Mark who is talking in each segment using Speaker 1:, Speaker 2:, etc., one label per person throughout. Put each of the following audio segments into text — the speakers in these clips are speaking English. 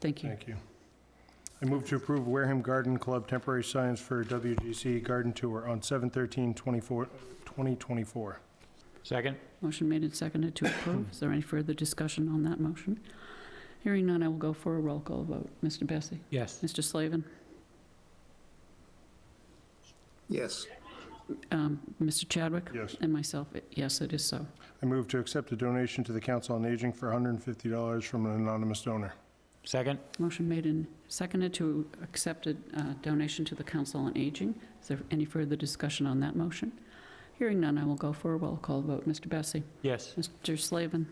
Speaker 1: Thank you.
Speaker 2: Thank you. I move to approve Wareham Garden Club temporary signs for WGC Garden Tour on 7/13/2024.
Speaker 3: Second?
Speaker 1: Motion made and seconded to approve. Is there any further discussion on that motion? Hearing none, I will go for a roll call vote. Mr. Bessie?
Speaker 3: Yes.
Speaker 1: Mr. Slavin?
Speaker 4: Yes,
Speaker 1: um, Mr. Chadwick?
Speaker 2: Yes.
Speaker 1: And myself, yes, it is so.
Speaker 2: I move to accept a donation to the Council on Aging for $150 from an anonymous donor.
Speaker 3: Second?
Speaker 1: Motion made and seconded to accept a uh, donation to the Council on Aging. Is there any further discussion on that motion? Hearing none, I will go for a roll call vote. Mr. Bessie?
Speaker 3: Yes.
Speaker 1: Mr. Slavin?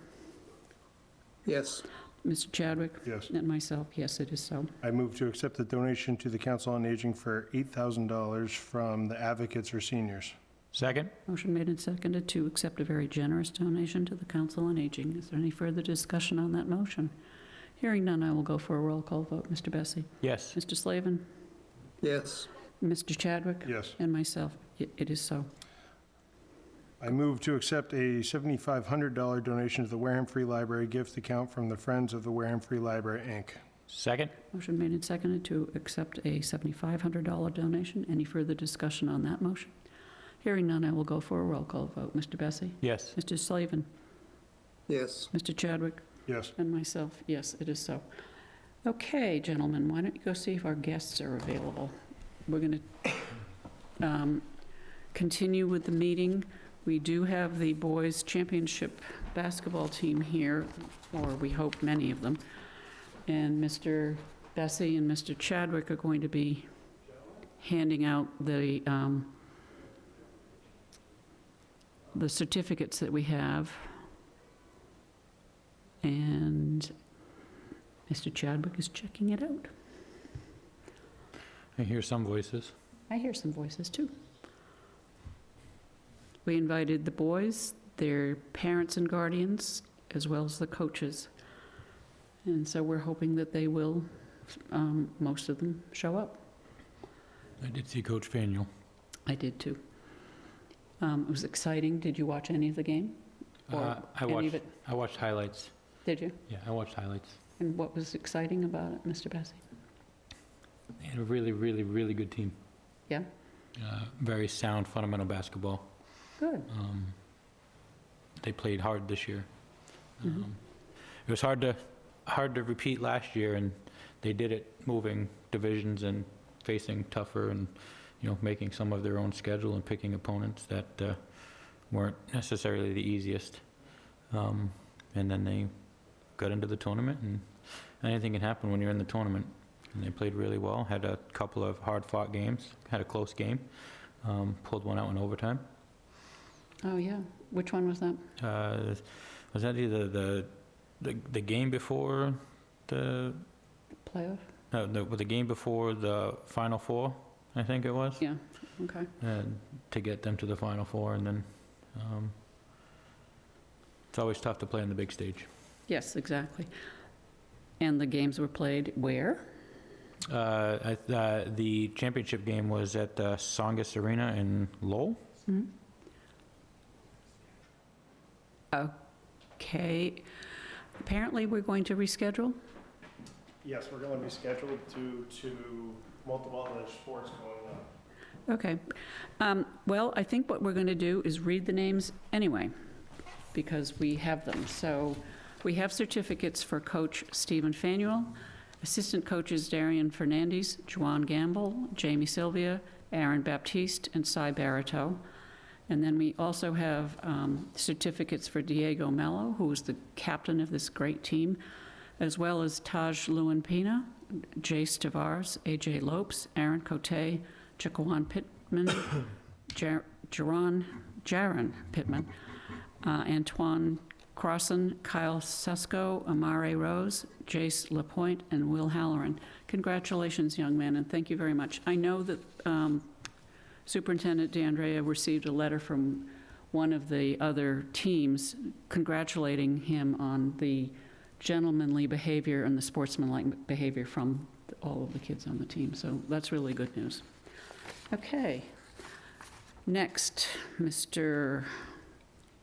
Speaker 4: yes,
Speaker 1: Mr. Chadwick?
Speaker 2: Yes.
Speaker 1: And myself, yes, it is so.
Speaker 2: I move to accept a donation to the Council on Aging for $8,000 from the Advocates for Seniors.
Speaker 3: Second?
Speaker 1: Motion made and seconded to accept a very generous donation to the Council on Aging. Is there any further discussion on that motion? Hearing none, I will go for a roll call vote. Mr. Bessie?
Speaker 3: Yes.
Speaker 1: Mr. Slavin?
Speaker 4: yes,
Speaker 1: Mr. Chadwick?
Speaker 2: Yes.
Speaker 1: And myself, Y- it is so.
Speaker 2: I move to accept a $7,500 donation to the Wareham Free Library gift account from the Friends of the Wareham Free Library, Inc.
Speaker 3: Second?
Speaker 1: Motion made and seconded to accept a $7,500 donation. Any further discussion on that motion? Hearing none, I will go for a roll call vote. Mr. Bessie?
Speaker 3: Yes.
Speaker 1: Mr. Slavin?
Speaker 4: yes.
Speaker 1: Mr. Chadwick?
Speaker 2: Yes.
Speaker 1: And myself, yes, it is so. Okay, gentlemen, why don't you go see if our guests are available? We're going to continue with the meeting. We do have the boys' championship basketball team here, or we hope many of them. And Mr. Bessie and Mr. Chadwick are going to be handing out the, um, the certificates that we have. And Mr. Chadwick is checking it out.
Speaker 3: I hear some voices.
Speaker 1: I hear some voices too. We invited the boys, their parents and guardians, as well as the coaches. And so we're hoping that they will, um, most of them, show up.
Speaker 3: I did see Coach Faneuil.
Speaker 1: I did too. Um, It was exciting. Did you watch any of the game? Or
Speaker 3: Uh, I
Speaker 1: any of
Speaker 3: watched,
Speaker 1: it?
Speaker 3: I watched highlights.
Speaker 1: Did you?
Speaker 3: Yeah, I watched highlights.
Speaker 1: And what was exciting about it, Mr. Bessie?
Speaker 3: They had a really, really, really good team.
Speaker 1: Yeah?
Speaker 3: Uh, Very sound fundamental basketball.
Speaker 1: Good.
Speaker 3: Um, They played hard this year.
Speaker 1: Mhm.
Speaker 3: Um, It was hard to, hard to repeat last year, and they did it moving divisions and facing tougher and, you know, making some of their own schedule and picking opponents that uh, weren't necessarily the easiest. Um, And then they got into the tournament, and anything can happen when you're in the tournament. And they played really well, had a couple of hard-fought games, had a close game, um, pulled one out in overtime.
Speaker 1: Oh, yeah. Which one was that?
Speaker 3: Uh, Was that either the, the the game before the,
Speaker 1: Playoff?
Speaker 3: no, no, the game before the Final Four, I think it was?
Speaker 1: Yeah, okay.
Speaker 3: And to get them to the Final Four, and then, um, it's always tough to play on the big stage.
Speaker 1: Yes, exactly. And the games were played where?
Speaker 3: Uh, I- uh, The championship game was at uh, Songus Arena in Lowell?
Speaker 1: Okay, apparently we're going to reschedule?
Speaker 2: Yes, we're going to be scheduled due to multiple other sports going on.
Speaker 1: Okay. Um, Well, I think what we're going to do is read the names anyway, because we have them. So we have certificates for Coach Stephen Fanuel, Assistant Coaches Darian Fernandez, Juan Gamble, Jamie Sylvia, Aaron Baptiste, and Cy Barito. And then we also have um, certificates for Diego Mello, who is the captain of this great team, as well as Taj Lewin Pina, Jace Tavares, AJ Lopes, Aaron Cote, Jaquan Pittman, Jar- Jaron, Jaron Pittman, uh, Antoine Crossan, Kyle Sesko, Amare Rose, Jace Lapointe, and Will Halloran. Congratulations, young man, and thank you very much. I know that um, Superintendent DeAndrea received a letter from one of the other teams congratulating him on the gentlemanly behavior and the sportsmanlike behavior from all of the kids on the team, so that's really good news. Okay. Next, Mr.,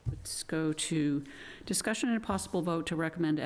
Speaker 1: let's go to discussion and possible vote to recommend